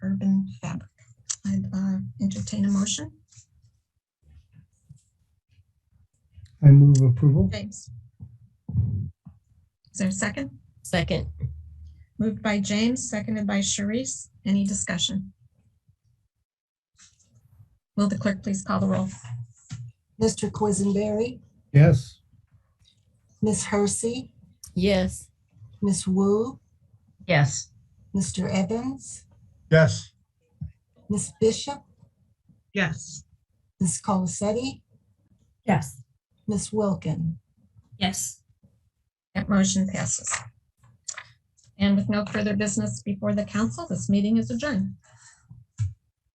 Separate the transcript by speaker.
Speaker 1: uh, entertain a motion.
Speaker 2: I move approval.
Speaker 1: James. Is there a second?
Speaker 3: Second,
Speaker 1: Moved by James, seconded by Sharice. Any discussion? Will the clerk please call the roll?
Speaker 4: Mr. Quisenberry,
Speaker 2: Yes.
Speaker 4: Miss Hersey,
Speaker 3: yes.
Speaker 4: Miss Wu,
Speaker 5: yes,
Speaker 4: Mr. Evans,
Speaker 2: Yes.
Speaker 4: Miss Bishop,
Speaker 6: yes,
Speaker 4: Miss Colacetti,
Speaker 7: yes,
Speaker 4: Miss Wilkin.
Speaker 8: yes,
Speaker 1: That motion passes. And with no further business before the council, this meeting is adjourned.